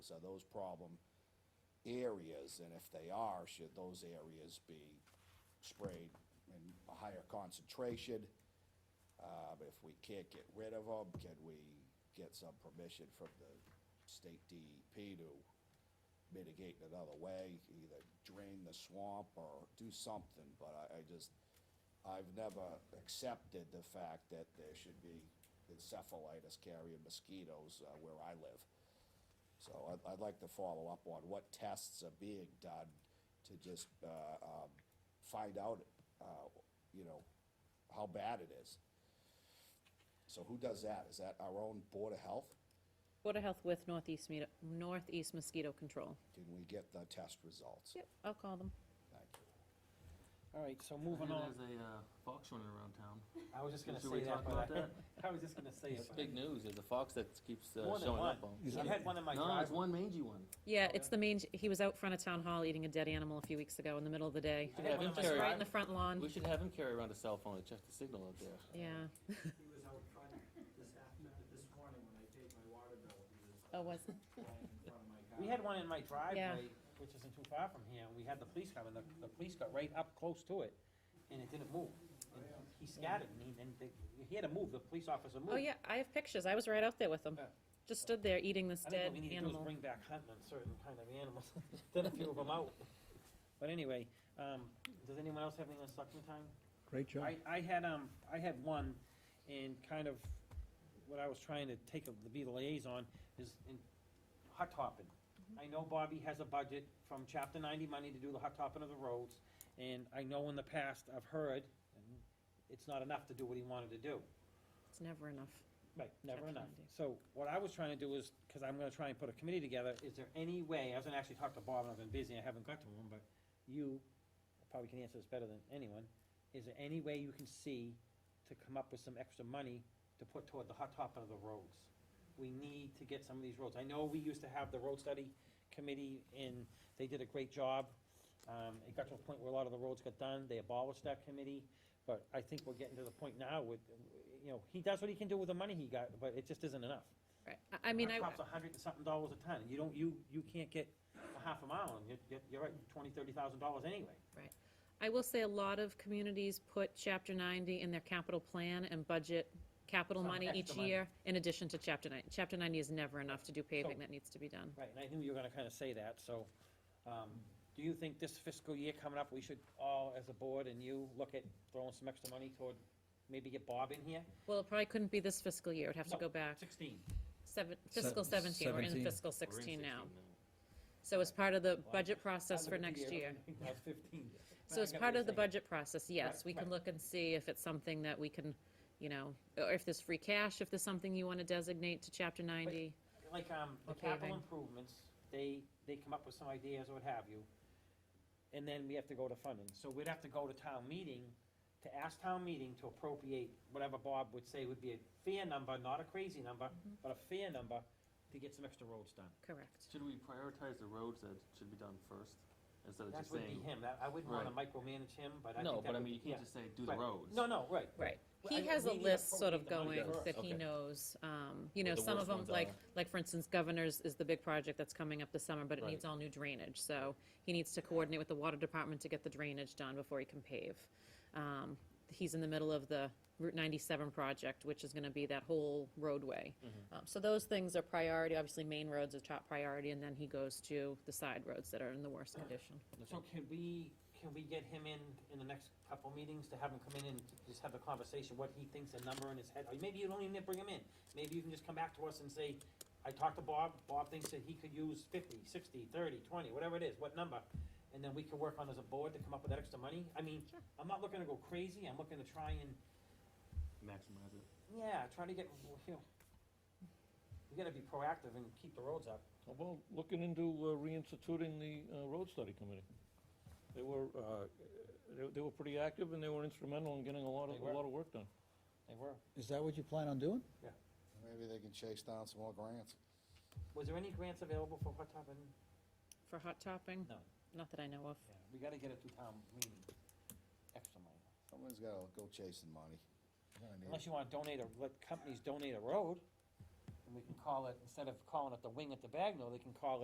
are those problem areas? And if they are, should those areas be sprayed in a higher concentration? Uh, if we can't get rid of them, can we get some permission from the state DEP to mitigate in another way? Either drain the swamp or do something, but I, I just, I've never accepted the fact that there should be encephalitis carrying mosquitoes, uh, where I live. So I'd, I'd like to follow up on what tests are being done to just, uh, um, find out, uh, you know, how bad it is. So who does that? Is that our own Board of Health? Board of Health with Northeast, Mito- Northeast Mosquito Control. Can we get the test results? Yep, I'll call them. Thank you. All right, so I moving know on, There's a uh, fox running around town. I was just gonna Should we say that, talk about but that? I, I was just gonna say it. It's but big news. There's a fox that keeps uh, More than showing one. up on. I had one in my No, driveway. it's one mangy one. Yeah, it's the main, he was out front of town hall eating a dead animal a few weeks ago in the middle of the day. We had should have one him in my Just carry. right in the front We lawn, should have him carry around a cell phone to check the signal up there. yeah. He was out front this afternoon, this morning when I paid my water bill, he was uh, Oh, was, lying in front of my car. We had one in my driveway, which isn't too far from here, and we had the police come, and the, the police got right up close to it, and it didn't move. And He scattered, and he, and they- he had to move, the police officer moved. oh yeah, I have pictures. I was right out there with him. Yeah. Just stood there eating this I think dead what we need to do is animal. bring back hunting on certain kind of animals, then a few of them out. But anyway, um, does anyone else have anything on selectmen time? Great job. I, I had, um, I had one, and kind of what I was trying to take, a- to be the liaison, is in hot topping. Mm-hmm. I know Bobby has a budget from chapter ninety money to do the hot topping of the roads, and I know in the past, I've heard, and it's not enough to do what he wanted to do. It's never enough. Right, never Chapter enough. 90. So what I was trying to do is, because I'm gonna try and put a committee together, is there any way, I was gonna actually talk to Bob, and I've been busy, I haven't got to him, but you probably can answer this better than anyone. Is there any way you can see to come up with some extra money to put toward the hot top of the roads? We need to get some of these roads. I know we used to have the road study committee, and they did a great job. Um, it got to a point where a lot of the roads got done, they abolished that committee, but I think we're getting to the point now with, you know, he does what he can do with the money he got, but it just isn't enough. Right. I- I mean, I, Hot top's a hundred and something dollars a ton, you don't, you, you can't get a half a mile, and you're- you're, you're right, twenty, thirty thousand dollars anyway. I will say a lot of communities put chapter ninety in their capital plan and budget capital Some money each extra money. year in addition to chapter nine. Chapter ninety is never enough to do paving So- that needs to be done. Right, and I knew you were gonna kinda say that, so, um, do you think this fiscal year coming up, we should all, as a board and you, look at throwing some extra money toward, maybe get Bob in here? Well, it probably couldn't be this fiscal year. It'd have to No, go back Sixteen. seven, fiscal Se- seventeen. We're in 17. fiscal We're in sixteen now. So as part of the budget process for next year. That's fifteen. So as I get what part you're of the saying. budget process, yes, Right, we can right. look and see if it's something that we can, you know, or if there's free cash, if there's something you want to designate to chapter ninety. like, um, the Okay, capital then. improvements, they, they come up with some ideas or what have you, and then we have to go to funding. So we'd have to go to town meeting, to ask town meeting to appropriate whatever Bob would say would be a fair number, not a crazy number, Mm-hmm. but a fair number, to get some extra roads done. Correct. Should we prioritize the roads that should be done first instead of That just would be him, saying? that, I wouldn't wanna Right. micromanage him, but I think that would. No, but I mean, you yeah. can't just say, do the Right. roads. No, no, right. Right. Well, He I- has a we need to list sort of appropriate the going money first. that he Okay. knows, um, you know, What the some of worst them, ones like, are. like for instance, Governors is the big project that's coming up this summer, but it needs Right. all new drainage, so he needs to coordinate with the water department to get the drainage done before he can pave. Um, he's in the middle of the Route ninety-seven project, which is gonna be that whole roadway. Um, so those things are priority, obviously, main roads are top priority, and then he goes to the side roads that are in the worst condition. So can we, can we get him in, in the next couple meetings to have him come in and just have a conversation, what he thinks a number in his head? Or maybe you don't even bring him in. Maybe you can just come back to us and say, I talked to Bob, Bob thinks that he could use 50, 60, 30, 20, whatever it is, what number? And then we can work on as a board to come up with that extra money. I mean, I'm not looking to go crazy, I'm looking to try and, Maximize it. yeah, try to get, you know, we gotta be proactive and keep the roads up. How about looking into uh, reinstituting the uh, road study committee? They were, uh, they- they were pretty active and they were instrumental in getting a lot of, They a were. lot of work done. They were. Is that what you plan on doing? Maybe they can chase down some more grants. Was there any grants available for hot top and? For hot topping? No. Not that I know of. Yeah, we gotta get it to town meeting, extra money. Someone's gotta go chasing money. We're gonna need it. Unless you wanna donate a, let companies donate a road, and we can call it, instead of calling it the wing at the Bagnell, they can call it.